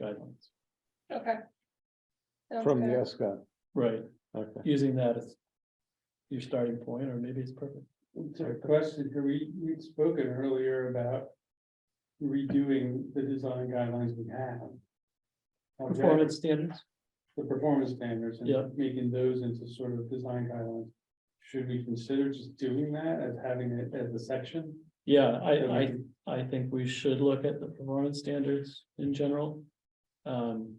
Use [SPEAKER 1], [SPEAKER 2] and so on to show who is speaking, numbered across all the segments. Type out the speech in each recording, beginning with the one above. [SPEAKER 1] guidelines,
[SPEAKER 2] Okay. Sounds
[SPEAKER 3] from the
[SPEAKER 2] good.
[SPEAKER 3] ESCOM,
[SPEAKER 1] right,
[SPEAKER 3] okay.
[SPEAKER 1] using that as your starting point, or maybe it's perfect.
[SPEAKER 4] To the question, here, we, we'd spoken earlier about redoing the design guidelines we have. Okay,
[SPEAKER 1] Performance standards,
[SPEAKER 4] The performance standards
[SPEAKER 1] Yeah.
[SPEAKER 4] and making those into sort of design guidelines. Should we consider just doing that as having it as a section?
[SPEAKER 1] yeah, I, I, I think we should look at the performance standards in general. Um,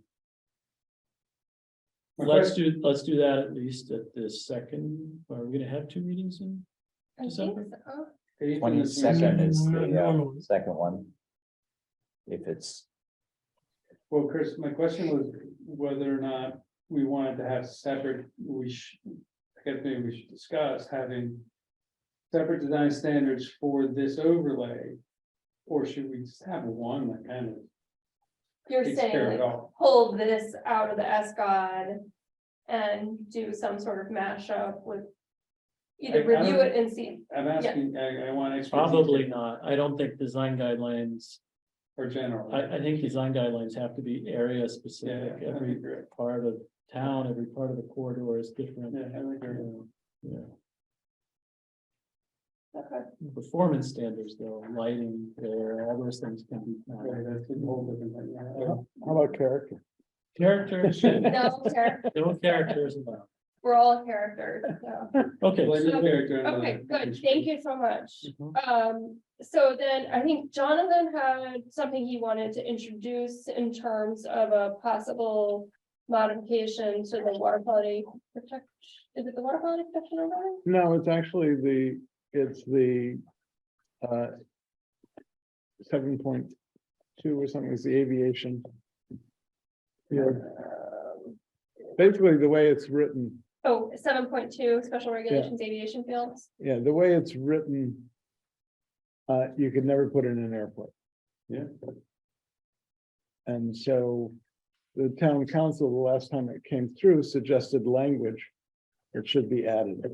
[SPEAKER 4] My
[SPEAKER 1] let's do, let's do that at least at this second, are we gonna have two meetings in?
[SPEAKER 2] I think
[SPEAKER 1] December?
[SPEAKER 2] so.
[SPEAKER 4] question-
[SPEAKER 5] Twenty-second is the uh, second one. If it's,
[SPEAKER 4] Well, Chris, my question was whether or not we wanted to have separate, we should, I guess maybe we should discuss having. Separate design standards for this overlay, or should we just have one that kind of
[SPEAKER 2] You're
[SPEAKER 4] takes care of
[SPEAKER 2] saying
[SPEAKER 4] it
[SPEAKER 2] like,
[SPEAKER 4] all?
[SPEAKER 2] pull this out of the S God and do some sort of mashup with. Either
[SPEAKER 4] I- I
[SPEAKER 2] review
[SPEAKER 4] don't-
[SPEAKER 2] it and see,
[SPEAKER 4] I'm asking, I, I want. extra detail
[SPEAKER 1] Probably not, I don't think design guidelines,
[SPEAKER 4] Or general.
[SPEAKER 1] I, I think design guidelines have to be area
[SPEAKER 4] Yeah,
[SPEAKER 1] specific,
[SPEAKER 4] I
[SPEAKER 1] every
[SPEAKER 4] agree.
[SPEAKER 1] part of town, every part of the corridor is different.
[SPEAKER 4] Yeah, I agree.
[SPEAKER 1] Yeah.
[SPEAKER 2] okay,
[SPEAKER 1] Performance standards, though, lighting, there, all those things can be.
[SPEAKER 4] Right,
[SPEAKER 1] found.
[SPEAKER 4] that's a whole different thing, yeah.
[SPEAKER 3] How about character?
[SPEAKER 1] Characters,
[SPEAKER 2] no, char-
[SPEAKER 1] no characters allowed.
[SPEAKER 2] we're all characters, so.
[SPEAKER 1] Okay,
[SPEAKER 4] Blend your
[SPEAKER 2] so-
[SPEAKER 4] character and
[SPEAKER 2] Okay,
[SPEAKER 4] the-
[SPEAKER 2] good, thank you so much.
[SPEAKER 4] Mm-hmm.
[SPEAKER 1] Mhm.
[SPEAKER 2] Um, so then I think Jonathan had something he wanted to introduce in terms of a possible. Modification to the water quality protect, is it the water quality protection overlay?
[SPEAKER 3] No, it's actually the, it's the uh seven point two or something is the aviation. Yeah,
[SPEAKER 2] Um,
[SPEAKER 3] basically the way it's written,
[SPEAKER 2] Oh, seven point two, special regulations aviation fields,
[SPEAKER 3] yeah, the way it's written. Uh, you could never put in an airport.
[SPEAKER 4] Yeah.
[SPEAKER 3] And so the town council, the last time it came through, suggested language. It should be added.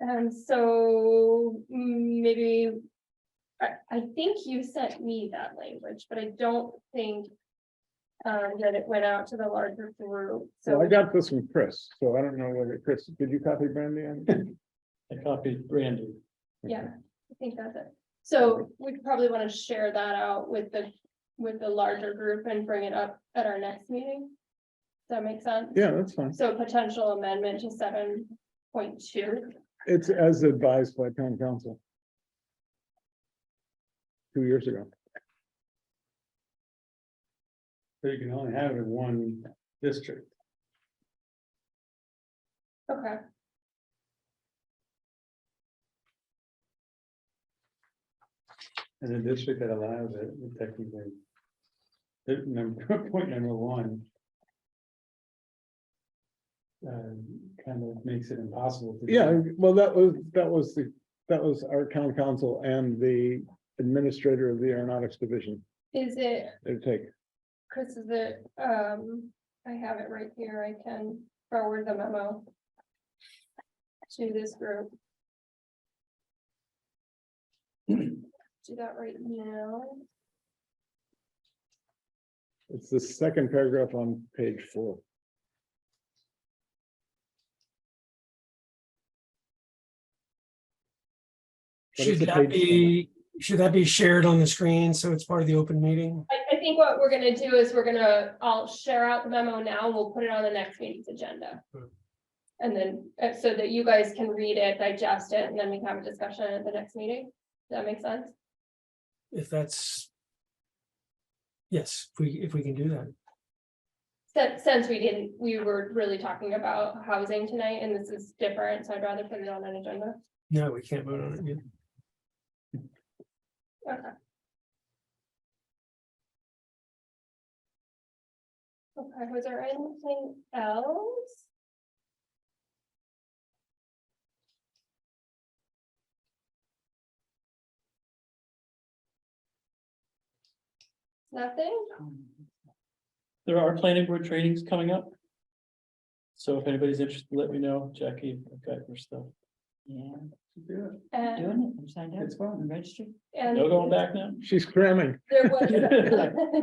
[SPEAKER 2] and so mm, maybe. I, I think you sent me that language, but I don't think. Um, that it went out to the larger group,
[SPEAKER 3] So Oh, I
[SPEAKER 2] so.
[SPEAKER 3] got this from Chris, so I don't know whether, Chris, did you copy Brandy? on it?
[SPEAKER 1] I copied Brandy.
[SPEAKER 2] Yeah, I think that's it. So we could probably want to share that out with the, with the larger group and bring it up at our next meeting. Does that make sense?
[SPEAKER 3] Yeah, that's fine.
[SPEAKER 2] So potential amendment to seven point two.
[SPEAKER 3] It's as advised by town council. Two years ago.
[SPEAKER 4] So you can only have it in one district.
[SPEAKER 2] Okay.
[SPEAKER 4] And the district that allows it would technically. the Number, point number one. um, kind of makes it impossible. to do.
[SPEAKER 3] Yeah, well, that was, that was the, that was our town council and the administrator of the aeronautics division.
[SPEAKER 2] Is it,
[SPEAKER 3] Their take.
[SPEAKER 2] Chris, is it, um, I have it right here. I can forward the memo. To this group. Do that right now.
[SPEAKER 3] It's the second paragraph on page four. But it's
[SPEAKER 6] Should
[SPEAKER 3] a page
[SPEAKER 6] that be, should that be shared on the screen so it's part of the open meeting?
[SPEAKER 2] I, I think what we're gonna do is we're gonna, I'll share out the memo now and we'll put it on the next meeting's agenda.
[SPEAKER 6] Hmm.
[SPEAKER 2] And then, uh, so that you guys can read it, digest it, and then we can have a discussion at the next meeting. Does that make sense?
[SPEAKER 6] If that's. Yes, if we, if we can do that.
[SPEAKER 2] Since, since we didn't, we were really talking about housing tonight and this is different, so I'd rather put it on an agenda.
[SPEAKER 6] No, we can't vote on it. yet.
[SPEAKER 2] Okay. Okay, was there anything else? Nothing?
[SPEAKER 1] There are planning board trainings coming up. So if anybody's interested, let me know, Jackie, I've got your stuff.
[SPEAKER 7] Yeah,
[SPEAKER 4] Yeah,
[SPEAKER 7] I'm
[SPEAKER 2] And,
[SPEAKER 7] doing it. I'm signed up.
[SPEAKER 4] It's fun.
[SPEAKER 7] I'm registered.
[SPEAKER 2] and
[SPEAKER 1] No going back now?
[SPEAKER 3] She's cramming.
[SPEAKER 2] there was.